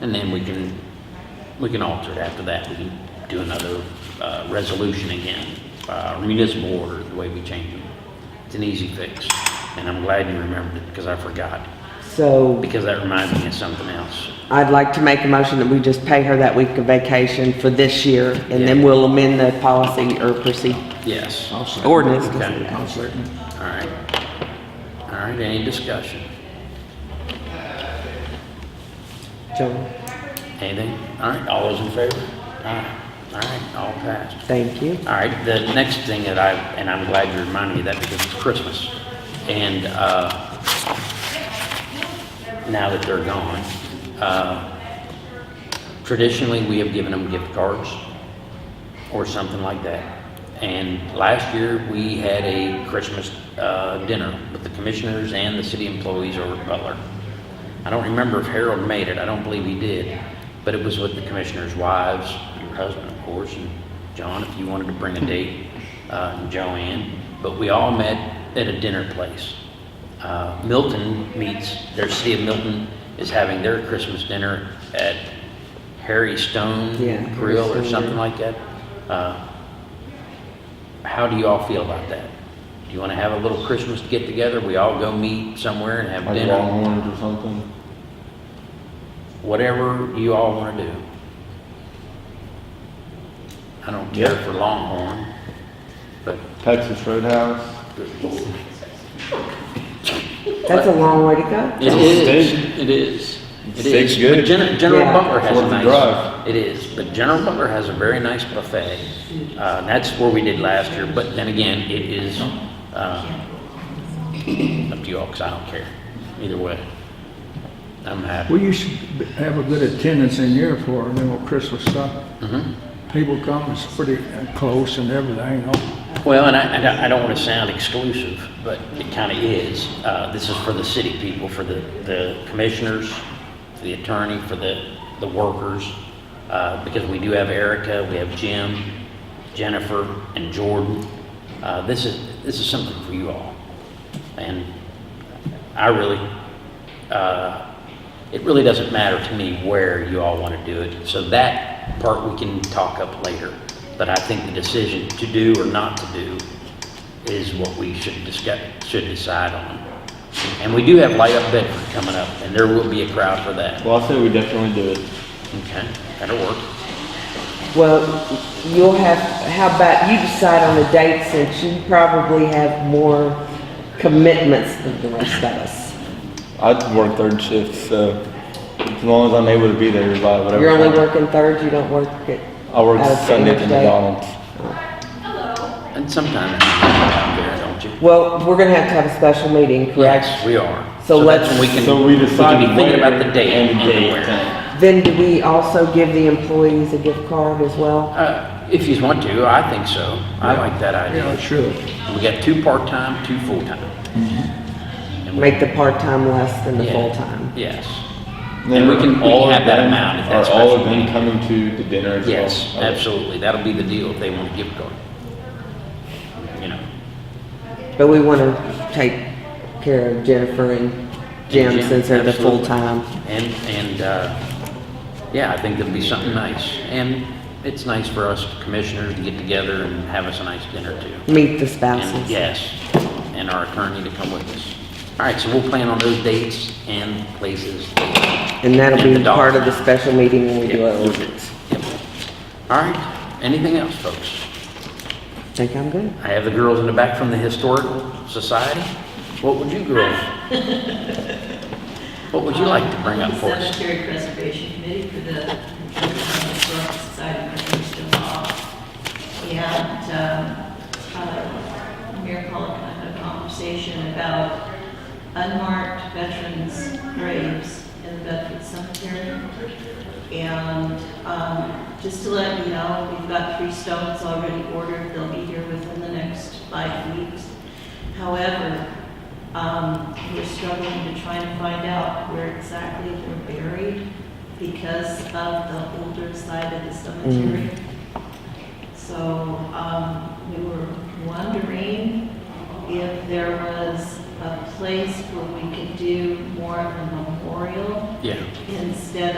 And then we can, we can alter it after that. We can do another, uh, resolution again, uh, municipal order, the way we change them. It's an easy fix. And I'm glad you remembered it because I forgot, So because that reminds me of something else. I'd like to make a motion that we just pay her that week of vacation for this year, and then Yeah. we'll amend the policy or proceed, Yes. All I'll second. ordinance. Okay. I'll second. right. All right, any discussion? Joan, Anything? All right, all those in favor? Aye. All right, all passed. thank you. All right, the next thing that I, and I'm glad you reminded me of that because it's Christmas. And, uh, now that they're gone, uh, traditionally, we have given them gift cards or something like that. And last year, we had a Christmas, uh, dinner with the commissioners and the city employees over at Butler. I don't remember if Harold made it, I don't believe he did, but it was with the commissioners' wives, your husband, of course, and John, if you wanted to bring a date, uh, and Joanne. But we all met at a dinner place. Uh, Milton meets, their city of Milton is having their Christmas dinner at Harry Stone Yeah, Harry Grill or Stone, something yeah. like that. Uh, How do you all feel about that? Do you want to have a little Christmas get-together? We all go meet somewhere and have Like dinner? Longhorns or something? whatever you all want to do. I don't care for Longhorn, but Texas Roadhouse? That's a long way to go. it is, it is. It is. Steak's good. But Gen- General Yeah. Butler has a Worth the drive. nice, it is, but General Butler has a very nice buffet. Uh, that's where we did last year, but then again, it is, uh, up to you all, 'cause I don't care, either way. I'm happy. Well, you should have a good attendance in here for, you know, Christmas stuff. Mhm. People come, it's pretty close and everything, you know. Well, and I- I, don't- I don't want to sound exclusive, but it kind of is. Uh, this is for the city people, for the, the commissioners, for the attorney, for the, the workers. Uh, because we do have Erica, we have Jim, Jennifer, and Jordan. Uh, this is, this is something for you all. And I really, uh, it really doesn't matter to me where you all want to do it. So that part we can talk up later. But I think the decision to do or not to do is what we should discuss, should decide on. And we do have Light Up Bedford coming up, and there will be a crowd for that. Well, I say we definitely do it. Okay, that'll work. Well, you'll have, how about, you decide on a date since you probably have more commitments than the rest of us. I work third shift, so as long as I'm able to be there by whatever. You're only time. working thirds, you don't work it. I work out of the Sunday at the interstate. McDonald's. And sometimes you get out there, don't you? Well, we're gonna have to have a special meeting, correct? Yes, we are. So that's let's- when We can, So we we decide. can be thinking about where the date and and date. where. Then do we also give the employees a gift card as well? Uh, If you want to, I think so. I like that Yeah, idea. it should. We got two part-time, two full-time. And we- Make the part-time less than the Yeah. full-time. Yes. then And we can- we can all of have that them amount if that's Are all of special them meeting. coming to the dinner as well? Yes, Okay. absolutely. That'll be the deal if they want a gift card. You know, But we wanna take care of Jennifer and Jim Jim, since they're the absolutely. full-time. and, and, uh, yeah, I think that'd be something nice. And it's nice for us commissioners to get together and have us a nice dinner too. Meet the And spouses. yes, and our attorney to come with us. All right, so we'll plan on those dates and places. And that'll and the be part of the dog. special meeting when we do our Yep. ordinance. Yep. All right, anything else, folks? Think I'm good? I have the girls in the back from the Historical Society. What would you girls? What would you like to bring up for us? Cemetery Preservation Committee for the Historical Society of Mr. Law. We had um, a miracle kind of conversation about unmarked veterans' graves in the Bedford Cemetery. And um, just to let you know, we've got three stones already ordered. They'll be here within the next five weeks. However, um, we're struggling to try and find out where exactly they're buried because of the older side of the cemetery. So, um, we were wondering if there was a place where we could do more of a memorial Yeah. instead of.